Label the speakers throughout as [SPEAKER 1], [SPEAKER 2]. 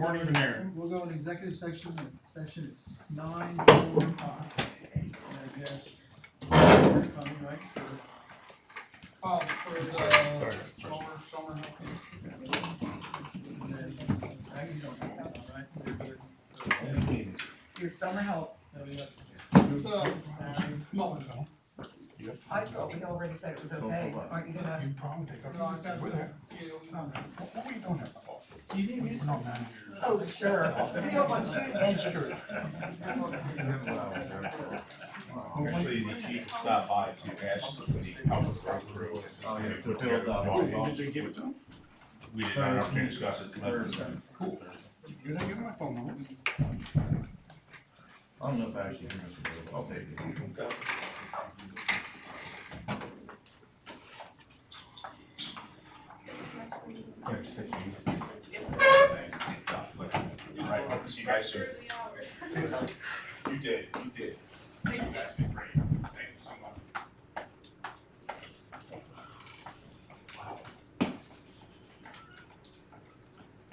[SPEAKER 1] weren't even there.
[SPEAKER 2] We'll go in executive section, and section is nine four five, and I guess, you're coming, right?
[SPEAKER 3] Oh, for the summer, summer help.
[SPEAKER 2] And then, Aggie, you don't have this on, right? You're good.
[SPEAKER 4] Your summer help,
[SPEAKER 2] No, you left it
[SPEAKER 3] So,
[SPEAKER 2] there. Aggie,
[SPEAKER 3] no, it's not.
[SPEAKER 4] I thought we already said it was okay, aren't you gonna?
[SPEAKER 5] You probably think
[SPEAKER 3] No, I
[SPEAKER 5] I'm
[SPEAKER 3] got
[SPEAKER 5] with
[SPEAKER 3] it.
[SPEAKER 5] her.
[SPEAKER 3] Yeah.
[SPEAKER 2] Tom,
[SPEAKER 5] What what were you doing there?
[SPEAKER 2] You didn't
[SPEAKER 5] We're
[SPEAKER 2] use.
[SPEAKER 5] not managers.
[SPEAKER 4] Oh, sure. We don't want you to-
[SPEAKER 5] I'm sure.
[SPEAKER 6] Actually, the chief stopped by to ask if he helped us run through. it.
[SPEAKER 7] Oh, yeah.
[SPEAKER 6] Put together the
[SPEAKER 5] Did they
[SPEAKER 6] bylaws.
[SPEAKER 5] give it to him?
[SPEAKER 6] We did not have to discuss it. tonight.
[SPEAKER 5] Cool. You're not giving my phone number?
[SPEAKER 7] I don't know if I actually hear Mr. Bill, I'll take it.
[SPEAKER 6] You're Right, hope to see you guys soon. You did, you did. You guys did great. Thank you so much.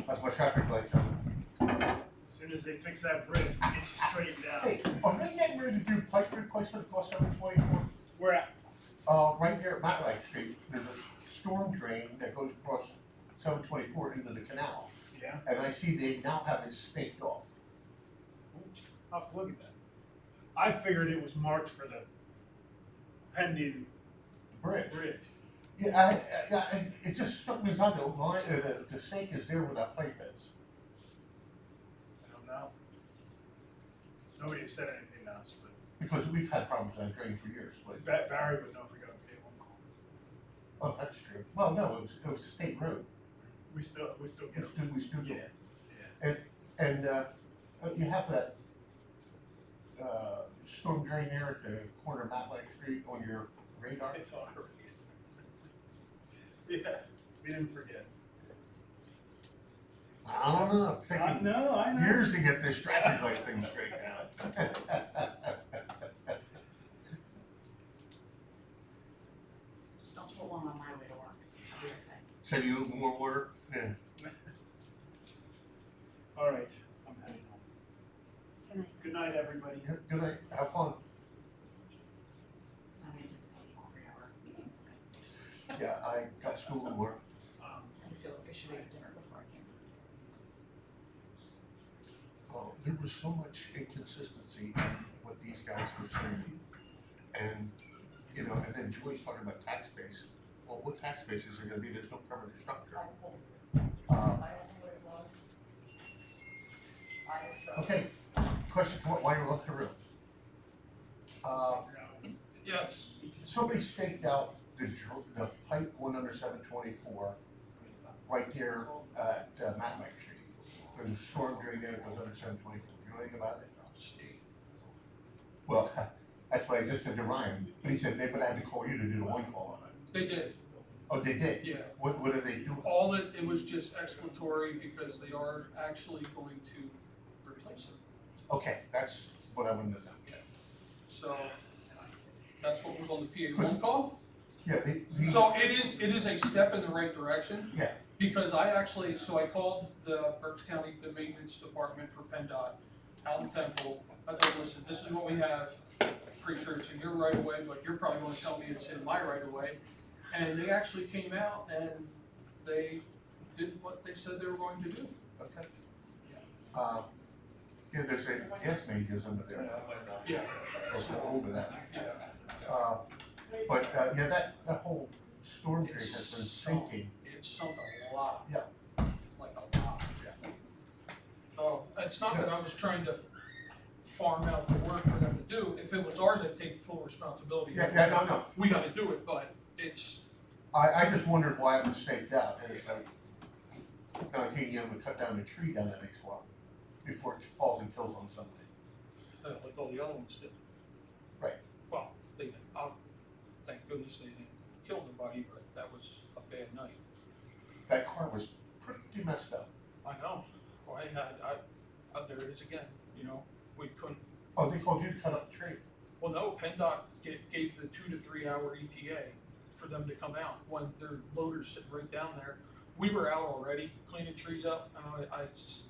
[SPEAKER 7] That's my traffic light coming.
[SPEAKER 8] As soon as they fix that bridge, we'll get you straightened out.
[SPEAKER 7] Hey, are they getting ready to do pipe replacement across seven twenty-four?
[SPEAKER 8] We're at,
[SPEAKER 7] Uh, right here at Matlack Street, there's a storm drain that goes across seven twenty-four into the canal.
[SPEAKER 8] Yeah.
[SPEAKER 7] And I see they now have it staked off.
[SPEAKER 8] I'll have to look at that. I figured it was marked for the pending
[SPEAKER 7] The Bridge.
[SPEAKER 8] bridge.
[SPEAKER 7] Yeah, I, I, yeah, and it just struck me as odd, the line, uh, the, the stake is there where that pipe is.
[SPEAKER 8] I don't know. Nobody has said anything else, but
[SPEAKER 7] Because we've had problems with that drain for years, but,
[SPEAKER 8] Ba- Barry would know if we got a pay one call.
[SPEAKER 7] oh, that's true. Well, no, it was, it was a state road,
[SPEAKER 8] We still, we still
[SPEAKER 7] we
[SPEAKER 8] get
[SPEAKER 7] stood, we stood.
[SPEAKER 8] Yeah,
[SPEAKER 7] And, uh, uh, you have that, uh, storm drain there at the corner of Matlack Street on your radar?
[SPEAKER 8] it's all right. Yeah, we didn't forget.
[SPEAKER 7] I don't know, I'm
[SPEAKER 8] I
[SPEAKER 7] thinking
[SPEAKER 8] know, I know.
[SPEAKER 7] years to get this traffic light thing straightened out.
[SPEAKER 9] Just don't put one on my way to work. I'll be okay.
[SPEAKER 7] Send you more water? Yeah.
[SPEAKER 8] All right, I'm heading home.
[SPEAKER 9] Good night.
[SPEAKER 8] Good night, everybody.
[SPEAKER 7] Yeah, Good night, have fun.
[SPEAKER 9] I'm anticipating a three-hour meeting.
[SPEAKER 7] Yeah, I got school to work.
[SPEAKER 8] Um,
[SPEAKER 9] I feel like I should have dinner before I came.
[SPEAKER 7] Well, Oh, there was so much inconsistency in what these guys were saying. And, you know, and then Joyce talking about tax base. Well, what tax bases are gonna be, there's no permanent structure. Uh, Okay, question, wh- why you left the room? Uh,
[SPEAKER 3] Yes.
[SPEAKER 7] somebody staked out the dr- the pipe one under seven twenty-four right there at uh, Matlack Street. There's a storm drain there that goes under seven twenty-four, you know anything about it? Well, that's why I just said to Ryan, but he said they would have to call you to do the one call on it.
[SPEAKER 3] They did,
[SPEAKER 7] Oh, they did?
[SPEAKER 3] yeah.
[SPEAKER 7] What, what do they do?
[SPEAKER 3] All that, it was just exploratory because they are actually going to replace it.
[SPEAKER 7] Okay, that's what I wanted to know.
[SPEAKER 3] So that's what was on the PA one call.
[SPEAKER 7] Yeah, they, these-
[SPEAKER 3] So it is, it is a step in the right direction.
[SPEAKER 7] Yeah.
[SPEAKER 3] Because I actually, so I called the Berks County, the maintenance department for PennDOT out in Temple. I told them, listen, this is what we have, pretty sure it's in your right of way, but you're probably gonna tell me it's in my right of way. And they actually came out and they did what they said they were going to do.
[SPEAKER 7] okay. Um, yeah, there's a gas main goes under there,
[SPEAKER 3] Yeah,
[SPEAKER 7] or over that.
[SPEAKER 3] yeah.
[SPEAKER 7] Uh, But, uh, yeah, that, that whole storm drain has been sinking.
[SPEAKER 3] It sunk a lot.
[SPEAKER 7] Yeah.
[SPEAKER 3] Like a lot. So it's not that I was trying to farm out the work for them to do. If it was ours, I'd take full responsibility.
[SPEAKER 7] Yeah, yeah, no, no,
[SPEAKER 3] We gotta do it, but it's,
[SPEAKER 7] I, I just wondered why it was staked out, and it's like, no, I think you have to cut down the tree down the next one, before it falls and kills on something.
[SPEAKER 3] uh, like all the other ones did.
[SPEAKER 7] Right.
[SPEAKER 3] Well, they, I'll, thank goodness they didn't kill anybody, but that was a bad night.
[SPEAKER 7] That car was pretty messed up.
[SPEAKER 3] I know. Well, I had, I, uh, there it is again, you know, we couldn't,
[SPEAKER 7] Oh, they called you to cut up the tree?
[SPEAKER 3] Well, no, PennDOT gave, gave the two to three hour ETA for them to come out when their loader's sitting right down there. We were out already cleaning trees up and I, I s-